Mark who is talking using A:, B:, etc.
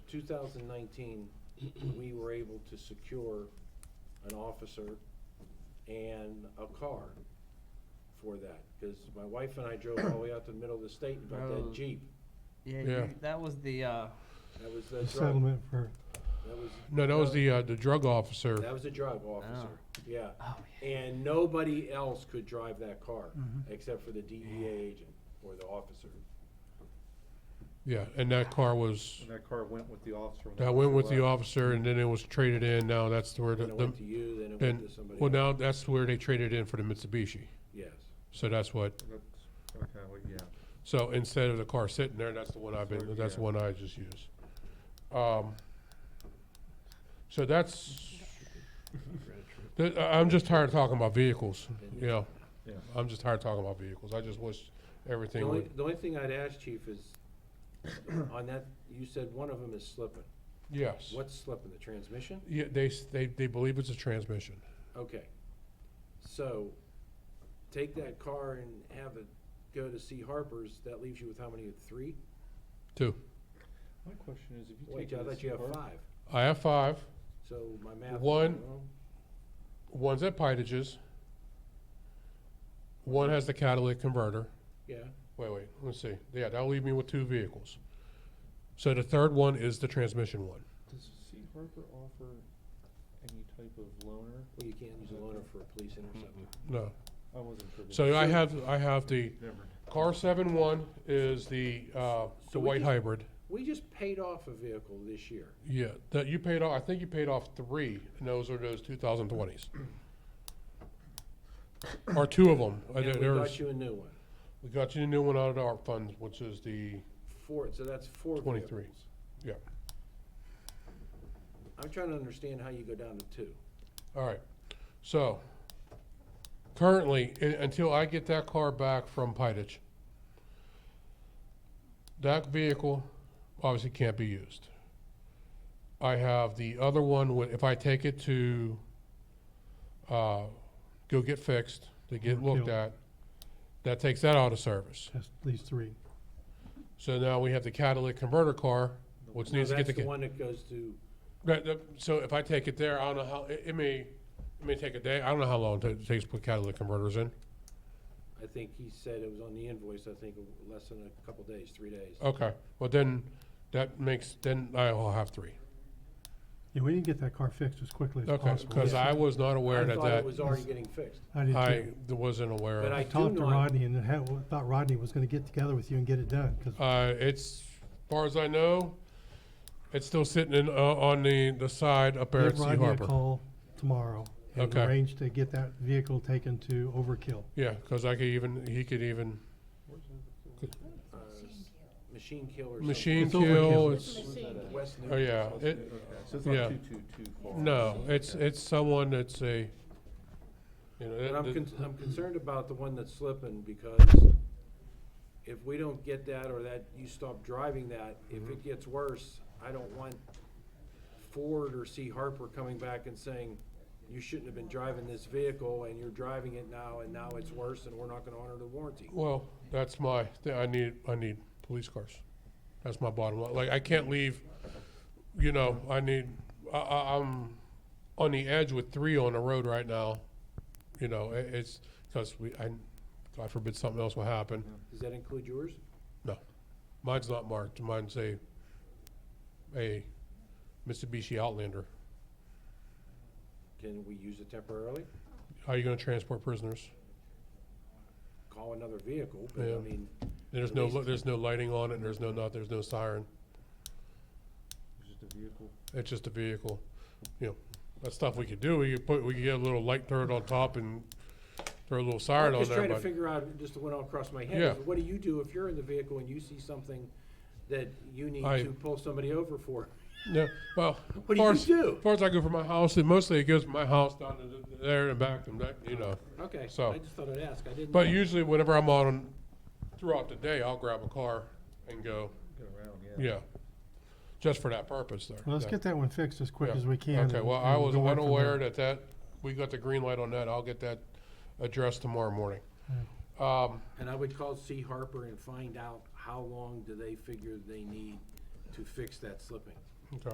A: two thousand nineteen, we were able to secure an officer and a car for that, because my wife and I drove all the way out to the middle of the state and got
B: Oh.
A: that Jeep.
B: Yeah,
C: Yeah.
B: you- that was the, uh,
A: That was the
D: The
A: drug,
D: settlement for,
A: that was.
C: No, that was the, uh, the drug officer.
A: That was the drug officer, yeah.
B: oh,
A: And nobody else could drive that car,
C: Mm-hmm.
A: except for the DEA agent or the officer.
C: Yeah, and that car was,
E: And that car went with the officer. when they
C: that went with
E: left.
C: the officer and then it was traded in. Now that's where the,
A: Then it went to
C: the-
A: you, then it went
C: then,
A: to somebody
C: well,
A: else,
C: now that's where they traded in for the Mitsubishi.
A: yes.
C: So that's what,
E: That's- Okay, well, yeah.
C: so instead of the car sitting there, that's the one I've been,
E: Sure,
C: that's the
E: yeah.
C: one I just used. Um, so that's, th- I- I'm just tired of talking about vehicles, you know?
E: Yeah.
C: I'm just tired of talking about vehicles. I just wish
A: The
C: everything
A: only,
C: would,
A: the only thing I'd ask, chief, is, on that, you said one of them is slipping.
C: yes.
A: What's slipping, the transmission?
C: Yeah, they, s- they, they believe it's a transmission.
A: Okay. So, take that car and have it go to see Harper's, that leaves you with how many, three?
C: Two.
E: My question is, if you take
A: Wait, I
E: it
A: thought
E: as
A: you
E: a
A: have
E: car.
A: five,
C: I have five.
A: so my math. is
C: One-
A: wrong.
C: One's at Pitages. One has the catalytic converter.
A: Yeah,
C: Wait, wait, let's see. Yeah, that'll leave me with two vehicles. So the third one is the transmission one.
E: Does C Harper offer any type of loaner?
A: well, you can't use a loaner for a police interceptor.
C: No.
E: I wasn't sure.
C: So I have, I have the
E: Never.
C: car seven one is the, uh,
A: So
C: the
A: we
C: white
A: just-
C: hybrid.
A: We just paid off a vehicle this year.
C: Yeah, that you paid off, I think you paid off three, and those are those two thousand twenties. Or two of them.
A: And we got you a new one.
C: We got you a new one out of the ARP funds, which is the,
A: Four, so that's four vehicles.
C: 23, yeah.
A: I'm trying to understand how you go down to two.
C: all right. So, currently, i- until I get that car back from Pidich, that vehicle obviously can't be used. I have the other one, wi- if I take it to, uh, go get fixed, to get looked
D: Overkill.
C: at, that takes that out of service.
D: just these three.
C: So now we have the catalytic converter car, which
A: Now,
C: needs to get the.
A: That's the
C: ca-
A: one that goes to,
C: Right, the- so if I take it there, I don't know how, it, it may, it may take a day, I don't know how long it takes to put catalytic converters in.
A: I think he said it was on the invoice, I think, less than a couple days, three days.
C: Okay, well then, that makes, then I'll have three.
D: Yeah, we didn't get that car fixed as quickly as
C: Okay,
D: possible.
C: because I was not aware
A: I
C: that Oh.
A: thought it
C: that,
A: was already getting fixed.
D: I did
C: I
D: too.
C: wasn't aware
A: But
C: of.
A: I
D: I
A: do
D: talked to
A: not-
D: Rodney and had, thought Rodney was gonna get together with you and get it done, cause
C: Uh, it's, as far as I know, it's still sitting in, uh, on the, the side up there at
D: give
C: Sea
D: Rodney a
C: Harbor.
D: call tomorrow and
C: Okay.
D: arrange to get that vehicle taken to Overkill.
C: Yeah, because I could even, he could even,
A: Uh, Machine Kill or something.
C: machine
D: It's overkill.
C: kill, it's,
A: West Newton.
C: oh yeah, it,
E: Okay, so it's not
C: yeah.
E: too, too, too far.
C: no, it's,
E: Okay.
C: it's someone that's a, you
A: But
C: know. it-
A: I'm,
C: it-
A: con- I'm concerned about the one that's slipping because if we don't get that or that, you stop driving that, if
C: Mm-hmm.
A: it gets worse, I don't want Ford or C Harper coming back and saying, you shouldn't have been driving this vehicle and you're driving it now and now it's worse and we're not gonna honor the warranty.
C: Well, that's my, thi- I need, I need police cars. That's my bottom line. Like, I can't leave, you know, I need, I, I, I'm on the edge with three on the road right now. You know, it, it's, cause we, I, God forbid something else will happen.
A: Does that include yours?
C: No, mine's not marked. Mine's a, a Mitsubishi Outlander.
A: Can we use it temporarily?
C: How are you gonna transport prisoners?
A: Call another vehicle, but I
C: Yeah.
A: mean,
C: There's
A: At
C: no,
A: least-
C: li- there's no lighting on it, there's no nothing, there's no siren.
E: It's just a vehicle.
C: It's just a vehicle, you know, that stuff we could do, we could put, we could get a little light turret on top and throw a little siren
A: I'm
C: on
A: just
C: there,
A: trying to
C: but,
A: figure out, just went all across my
C: Yeah.
A: head, is what do you do if you're in the vehicle and you see something that you need
C: I-
A: to pull somebody over for?
C: no, well.
A: What do
C: far
A: you
C: as-
A: do?
C: Far as I go from my house, and mostly it goes from my house down to th- there and back and that, you know.
A: Okay,
C: So-
A: I just thought I'd ask, I didn't.
C: But
A: know.
C: usually whenever I'm on, throughout the day, I'll grab a car and go,
E: Get around, yeah.
C: yeah, just for that purpose there.
D: Well, let's get that one fixed as quick
C: Yeah.
D: as we can.
C: Okay,
D: and-
C: well, I
D: and
C: was
D: go on from
C: unaware
D: there.
C: that that, we got the green light on that, I'll get that addressed tomorrow morning. Um,
A: And I would call C Harper and find out how long do they figure they need to fix that slipping?